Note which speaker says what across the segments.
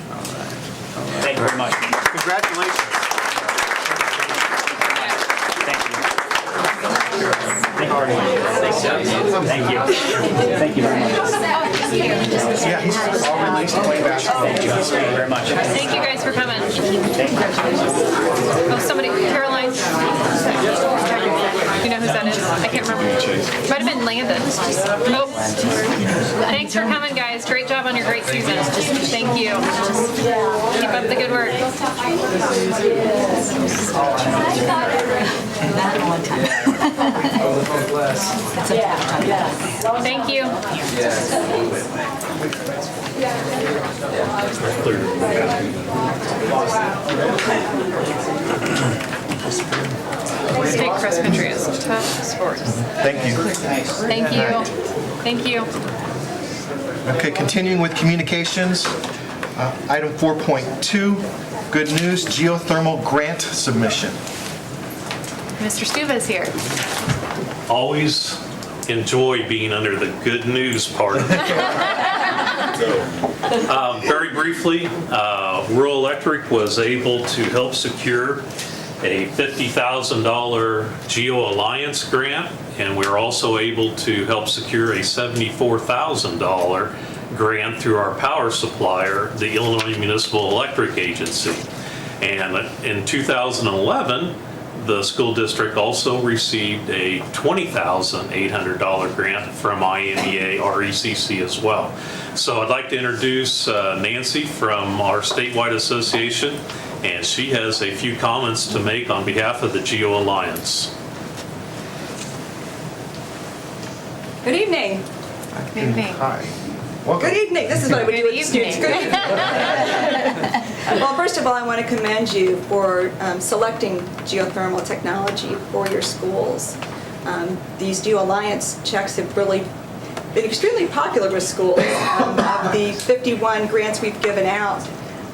Speaker 1: Thank you very much.
Speaker 2: Congratulations.
Speaker 1: Thank you. Thank you very much. Thank you. Thank you very much.
Speaker 2: Yeah, he's all released way back.
Speaker 1: Thank you very much.
Speaker 3: Thank you guys for coming. Oh, somebody, Caroline. You know who that is? I can't remember. Might have been Landon. Oh. Thanks for coming, guys. Great job on your great season. Thank you. Keep up the good work. Thank you. State cross country is a tough sport.
Speaker 2: Thank you.
Speaker 3: Thank you. Thank you.
Speaker 2: Okay, continuing with communications, uh, item 4.2, good news, geothermal grant submission.
Speaker 3: Mr. Stuba's here.
Speaker 4: always enjoy being under the good news part of the program. Um, Very briefly, uh, Rural Electric was able to help secure a $50,000 Geo Alliance grant, and we are also able to help secure a $74,000 grant through our power supplier, the Illinois Municipal Electric Agency. And in 2011, the school district also received a $20,800 grant from E IMEA RECC as well. So I'd like to introduce uh, Nancy from our statewide association, and she has a few comments to make on behalf of the GEO Alliance.
Speaker 5: Good evening.
Speaker 3: Good evening.
Speaker 2: Hi. Welcome.
Speaker 5: Good evening. This is what I would do
Speaker 3: Good
Speaker 5: with students.
Speaker 3: evening.
Speaker 5: Good evening. Well, first of all, I want to commend you for um, selecting geothermal technology for your schools. Um, These Geo Alliance checks have really been extremely popular with schools. Um, Of the 51 grants we've given out,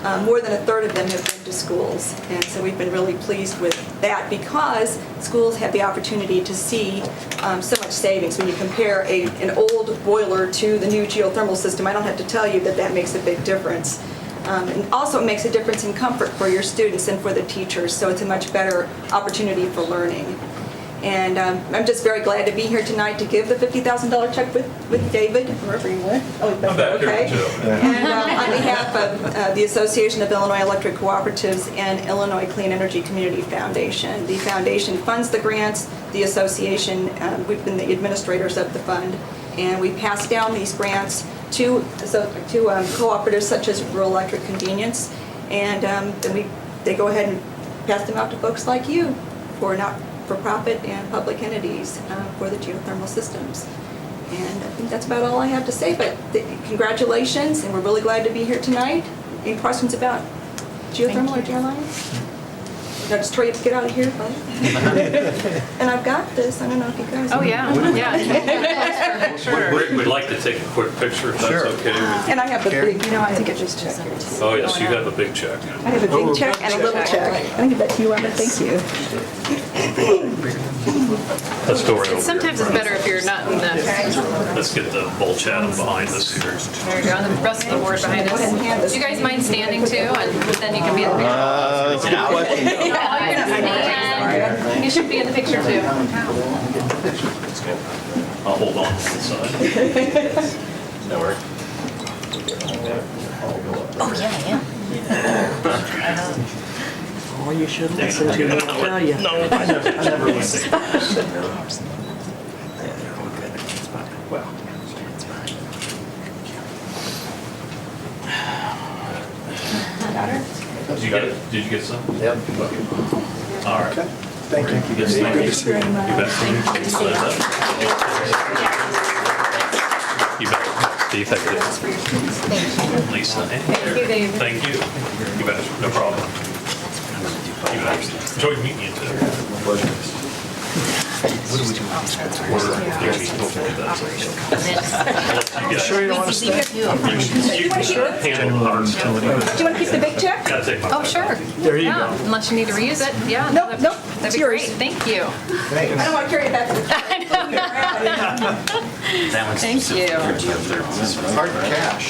Speaker 5: uh, more than a third of them have been to schools. And so we've been really pleased with that because schools have the opportunity to see um, so much savings. When you compare a, an old boiler to the new geothermal system, I don't have to tell you that that makes a big difference. Um, And also, it makes a difference in comfort for your students and for the teachers, so it's a much better opportunity for learning. And um, I'm just very glad to be here tonight to give the $50,000 check with with David, wherever you went. Oh, he's
Speaker 4: back here,
Speaker 5: okay.
Speaker 4: too.
Speaker 5: And um, on behalf of uh, the Association of Illinois Electric Cooperatives and Illinois Clean Energy Community Foundation. The foundation funds the grants, the association, um, we've been the administrators of the fund, and we pass down these grants to so- to um, cooperatives such as Rural Electric Convenience, and um, then we, they go ahead and pass them out to folks like you for not-for-profit and public entities uh, for the geothermal systems. And I think that's about all I have to say, but th- congratulations, and we're really glad to be here tonight. Any questions about geothermal or geoalliance? No, just Troy, get out of here, bud. And I've got this, I don't know if you guys.
Speaker 3: Oh, yeah, yeah.
Speaker 4: Rick, we'd like to take a quick picture if that's
Speaker 2: Sure.
Speaker 4: okay. with-
Speaker 5: And I have the
Speaker 2: Gary?
Speaker 5: big, you know, I think it's just check here.
Speaker 4: Oh, yes, you have a big check.
Speaker 5: I have a big check and a little check. I think that's you, Emma, thank you.
Speaker 4: Let's go right over here.
Speaker 3: Sometimes it's better if you're not in the,
Speaker 4: Let's get the bull chatham behind us here.
Speaker 3: there you go, on the rest of the board behind us. Do you guys mind standing too, and then you can be in the picture?
Speaker 5: Uh,
Speaker 3: Oh, you're gonna stand. You should be in the picture too.
Speaker 4: I'll hold on to the side.
Speaker 6: Oh, you should listen to me, I'll tell you.
Speaker 4: Did you get, did you get some? Yep. All right.
Speaker 2: Thank you.
Speaker 4: Yes, thank you.
Speaker 5: very much.
Speaker 4: You bet. You bet. Do you think it is? Lisa,
Speaker 3: Thank you, Dave.
Speaker 4: thank you. You bet, no problem. You bet. Enjoy meeting you too. Sure you want to stay? You can handle the hard stuff.
Speaker 5: Do you want to keep the big check?
Speaker 4: Gotta take my-
Speaker 3: Oh, sure. There you go. Unless you need to reuse it, yeah.
Speaker 5: Nope,
Speaker 3: that'd-
Speaker 5: nope,
Speaker 3: That'd
Speaker 5: it's
Speaker 3: be
Speaker 5: yours.
Speaker 3: great, thank you.
Speaker 5: I don't want to carry it back to the.
Speaker 3: Thank you.
Speaker 2: Hard cash.